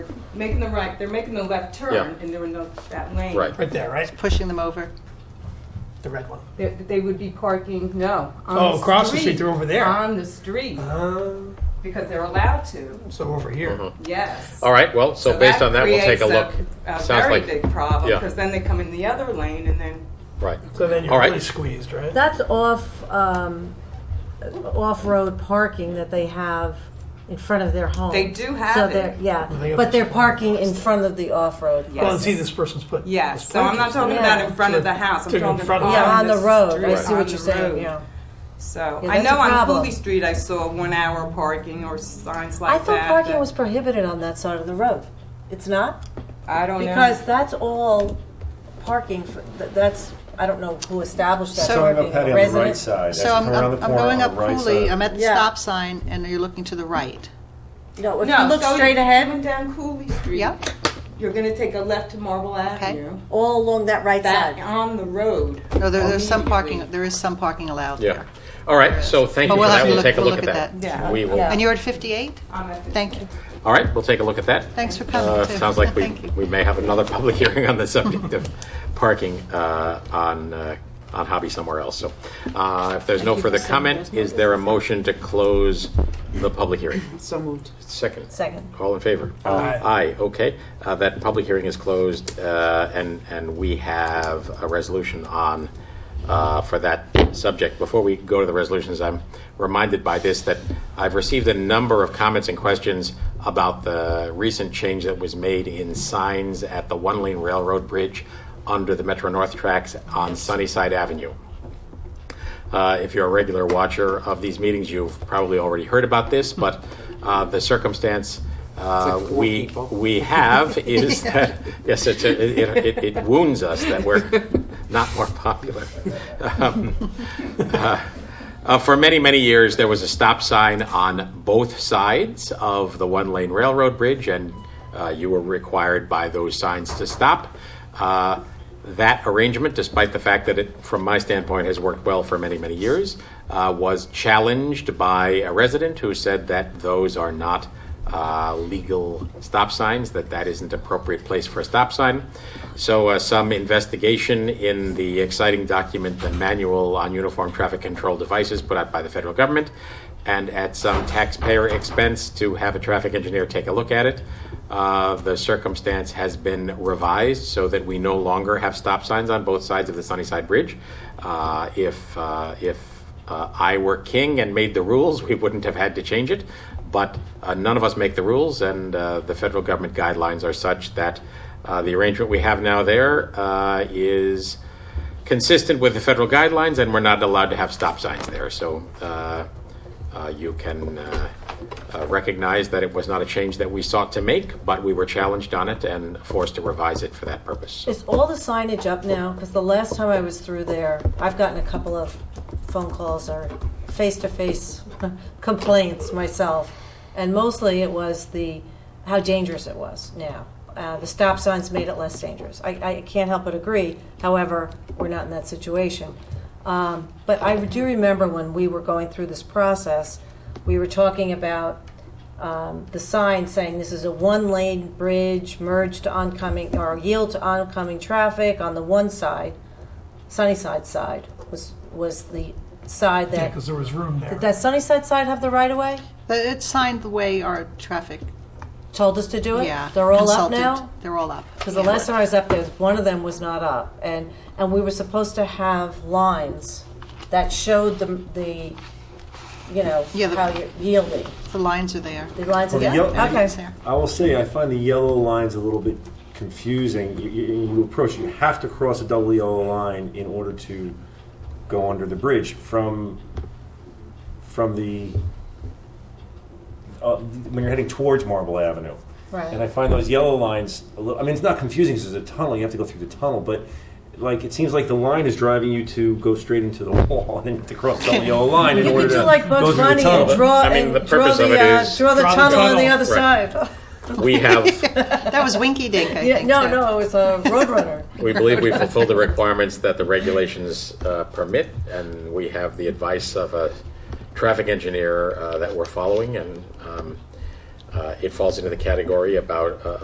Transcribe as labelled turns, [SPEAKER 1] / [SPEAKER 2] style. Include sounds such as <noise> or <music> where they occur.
[SPEAKER 1] making the right, they're making the left turn
[SPEAKER 2] Yeah.
[SPEAKER 1] and they're in the- that lane.
[SPEAKER 2] Right.
[SPEAKER 3] Right there, right?
[SPEAKER 4] pushing them over?
[SPEAKER 3] The red one.
[SPEAKER 1] They, they would be parking, no. on
[SPEAKER 3] Oh, across the street, they're over there.
[SPEAKER 1] On the street,
[SPEAKER 3] Um,
[SPEAKER 1] because they're allowed to,
[SPEAKER 3] so over here.
[SPEAKER 2] Mm-hmm.
[SPEAKER 1] yes.
[SPEAKER 2] All right, well, so based on that, we'll take a look.
[SPEAKER 1] creates A a
[SPEAKER 2] Sounds
[SPEAKER 1] very
[SPEAKER 2] like-
[SPEAKER 1] big problem,
[SPEAKER 2] yeah.
[SPEAKER 1] because then they come in the other lane and then,
[SPEAKER 2] Right.
[SPEAKER 3] So then you're
[SPEAKER 2] All right.
[SPEAKER 3] really squeezed, right?
[SPEAKER 5] That's off, um, off-road parking that they have in front of their home.
[SPEAKER 1] They do have
[SPEAKER 5] So
[SPEAKER 1] it.
[SPEAKER 5] they're,
[SPEAKER 3] They
[SPEAKER 5] yeah,
[SPEAKER 3] have
[SPEAKER 5] but they're
[SPEAKER 3] this-
[SPEAKER 5] parking in front of the off-road.
[SPEAKER 1] yes.
[SPEAKER 3] Well, and see, this person's put.
[SPEAKER 1] Yes,
[SPEAKER 3] this
[SPEAKER 1] so I'm not
[SPEAKER 3] plant
[SPEAKER 1] talking
[SPEAKER 3] is-
[SPEAKER 1] about in front of the house, I'm
[SPEAKER 3] To in
[SPEAKER 1] talking
[SPEAKER 3] front of-
[SPEAKER 1] on
[SPEAKER 5] Yeah, on the road, I
[SPEAKER 1] street,
[SPEAKER 5] see
[SPEAKER 1] on
[SPEAKER 5] what you're
[SPEAKER 1] the
[SPEAKER 5] saying,
[SPEAKER 1] road.
[SPEAKER 5] yeah.
[SPEAKER 1] So,
[SPEAKER 5] Yeah,
[SPEAKER 1] I
[SPEAKER 5] that's
[SPEAKER 1] know
[SPEAKER 5] a
[SPEAKER 1] on
[SPEAKER 5] problem.
[SPEAKER 1] Cooley Street, I saw one hour parking or signs like
[SPEAKER 5] I
[SPEAKER 1] that.
[SPEAKER 5] thought parking
[SPEAKER 1] that-
[SPEAKER 5] was prohibited on that side of the road. It's not?
[SPEAKER 1] I don't know.
[SPEAKER 5] Because that's all parking, for- th- that's, I don't know who established that
[SPEAKER 4] So-
[SPEAKER 6] So I have
[SPEAKER 5] parking.
[SPEAKER 6] a patio on the right
[SPEAKER 5] residents?
[SPEAKER 6] side.
[SPEAKER 4] So I'm, I'm I'm going up Cooley, I'm at the
[SPEAKER 5] Yeah.
[SPEAKER 4] stop sign, and you're looking to the right.
[SPEAKER 5] No, if you
[SPEAKER 1] No,
[SPEAKER 5] look
[SPEAKER 1] so
[SPEAKER 5] straight
[SPEAKER 1] you're
[SPEAKER 5] ahead,
[SPEAKER 1] Coming down Cooley Street.
[SPEAKER 4] Yep.
[SPEAKER 1] You're gonna take a left to Marble Avenue.
[SPEAKER 5] all along that right
[SPEAKER 1] Back
[SPEAKER 5] side.
[SPEAKER 1] on the road.
[SPEAKER 4] No, there, there's some parking,
[SPEAKER 1] immediately.
[SPEAKER 4] there is some parking allowed
[SPEAKER 2] Oh, Yeah.
[SPEAKER 4] there.
[SPEAKER 2] All right, so thank you
[SPEAKER 4] But
[SPEAKER 2] for
[SPEAKER 4] we'll have
[SPEAKER 2] that.
[SPEAKER 4] to
[SPEAKER 2] We'll
[SPEAKER 4] look-
[SPEAKER 2] take a
[SPEAKER 4] we'll
[SPEAKER 2] look at that.
[SPEAKER 1] Yeah.
[SPEAKER 2] We will.
[SPEAKER 5] Yeah.
[SPEAKER 4] And you're at 58?
[SPEAKER 1] I'm at the-
[SPEAKER 4] Thank you.
[SPEAKER 2] All right, we'll take a look at that.
[SPEAKER 4] Thanks for
[SPEAKER 2] Uh,
[SPEAKER 4] coming, too.
[SPEAKER 2] Sounds like we,
[SPEAKER 4] Thank you.
[SPEAKER 2] we may have another <laughs> public hearing on the subject of parking uh, on, uh, on Hobby somewhere else. So uh, if there's no further comment, is there a motion to close the public hearing?
[SPEAKER 7] So moved.
[SPEAKER 2] Second.
[SPEAKER 5] Second.
[SPEAKER 2] All in favor?
[SPEAKER 3] Aye.
[SPEAKER 2] Aye, okay. Uh, That public hearing is closed, uh, and, and we have a resolution on, uh, for that subject. Before we go to the resolutions, I'm reminded by this that I've received a number of comments and questions about the recent change that was made in signs at the one-lane railroad bridge under the Metro North tracks on Sunnyside Avenue. Uh, If you're a regular watcher of these meetings, you've probably already heard about this, but uh, the circumstance uh, we, we have is that, yes, it's a- it it- it wounds us that we're not more popular. Um, uh, uh, For many, many years, there was a stop sign on both sides of the one-lane railroad bridge, and uh, you were required by those signs to stop. Uh, that arrangement, despite the fact that it, from my standpoint, has worked well for many, many years, uh, was challenged by a resident who said that those are not uh, legal stop signs, that that isn't appropriate place for a stop sign. So uh, some investigation in the exciting document, the Manual on Uniform Traffic Control Devices, put out by the federal government, and at some taxpayer expense to have a traffic engineer take a look at it. Uh, the circumstance has been revised so that we no longer have stop signs on both sides of the Sunnyside Bridge. Uh, if uh, if uh, I were king and made the rules, we wouldn't have had to change it. But uh, none of us make the rules, and uh, the federal government guidelines are such that uh, the arrangement we have now there uh, is consistent with the federal guidelines, and we're not allowed to have stop signs there. So uh, uh, you can uh, uh, recognize that it was not a change that we sought to make, but we were challenged on it and forced to revise it for that purpose.
[SPEAKER 5] Is all the signage up now? Because the last time I was through there, I've gotten a couple of phone calls or face-to-face <laughs> complaints myself, and mostly it was the how dangerous it was. Now uh, the stop signs made it less dangerous. I, I can't help but agree. However, we're not in that situation. Um, but I do remember when we were going through this process, we were talking about um, the sign saying this is a one-lane bridge, merge to oncoming, or yield to oncoming traffic on the one side, Sunnyside side, was, was the side
[SPEAKER 3] Yeah,
[SPEAKER 5] that,
[SPEAKER 3] because there was room there.
[SPEAKER 5] did that Sunnyside side have the right-of-way?
[SPEAKER 4] But It's signed the way our traffic,
[SPEAKER 5] Told us to do it?
[SPEAKER 4] yeah.
[SPEAKER 5] They're all up
[SPEAKER 4] consultant-
[SPEAKER 5] now?
[SPEAKER 4] They're all up.
[SPEAKER 5] Because the last time I was up there, one of them was not up, and, and we were supposed to have lines that showed the, the, you know,
[SPEAKER 4] Yeah, the-
[SPEAKER 5] how you're yielding,
[SPEAKER 4] The lines
[SPEAKER 5] <laughs>
[SPEAKER 4] are there.
[SPEAKER 5] the lines of,
[SPEAKER 6] Well, the
[SPEAKER 5] yeah,
[SPEAKER 6] yellow-
[SPEAKER 5] okay.
[SPEAKER 4] Everything's there.
[SPEAKER 6] I will say, I find the yellow lines a little bit confusing. You, you, you approach, you have to cross a double yellow line in order to go under the bridge from from the uh, when you're heading towards Marble Avenue.
[SPEAKER 5] Right.
[SPEAKER 6] And I find those yellow lines. A little, I mean, it's not confusing because there's a tunnel. You have to go through the tunnel, but like it seems like the line is driving you to go straight into the <laughs> wall and then you have to cross the double yellow line in
[SPEAKER 5] You
[SPEAKER 6] order
[SPEAKER 5] could
[SPEAKER 6] to
[SPEAKER 5] do like
[SPEAKER 6] go
[SPEAKER 5] Bugs
[SPEAKER 6] through the
[SPEAKER 5] Bunny
[SPEAKER 6] tunnel.
[SPEAKER 5] and
[SPEAKER 6] But-
[SPEAKER 5] draw,
[SPEAKER 2] I mean,
[SPEAKER 5] and
[SPEAKER 2] the
[SPEAKER 5] draw
[SPEAKER 2] purpose of
[SPEAKER 5] the,
[SPEAKER 2] it
[SPEAKER 5] uh,
[SPEAKER 2] is-
[SPEAKER 5] draw the
[SPEAKER 3] Draw the
[SPEAKER 5] tunnel on the
[SPEAKER 3] tunnel.
[SPEAKER 5] other
[SPEAKER 2] Right.
[SPEAKER 5] side.
[SPEAKER 2] We have,
[SPEAKER 4] That was Winky Dink, I
[SPEAKER 5] Yeah,
[SPEAKER 4] think.
[SPEAKER 5] no,
[SPEAKER 4] that-
[SPEAKER 5] no, it's a Roadrunner.
[SPEAKER 2] we believe we fulfill the requirements that the regulations uh, permit, and we have the advice of a traffic engineer uh, that we're following, and um, uh, it falls into the category about uh,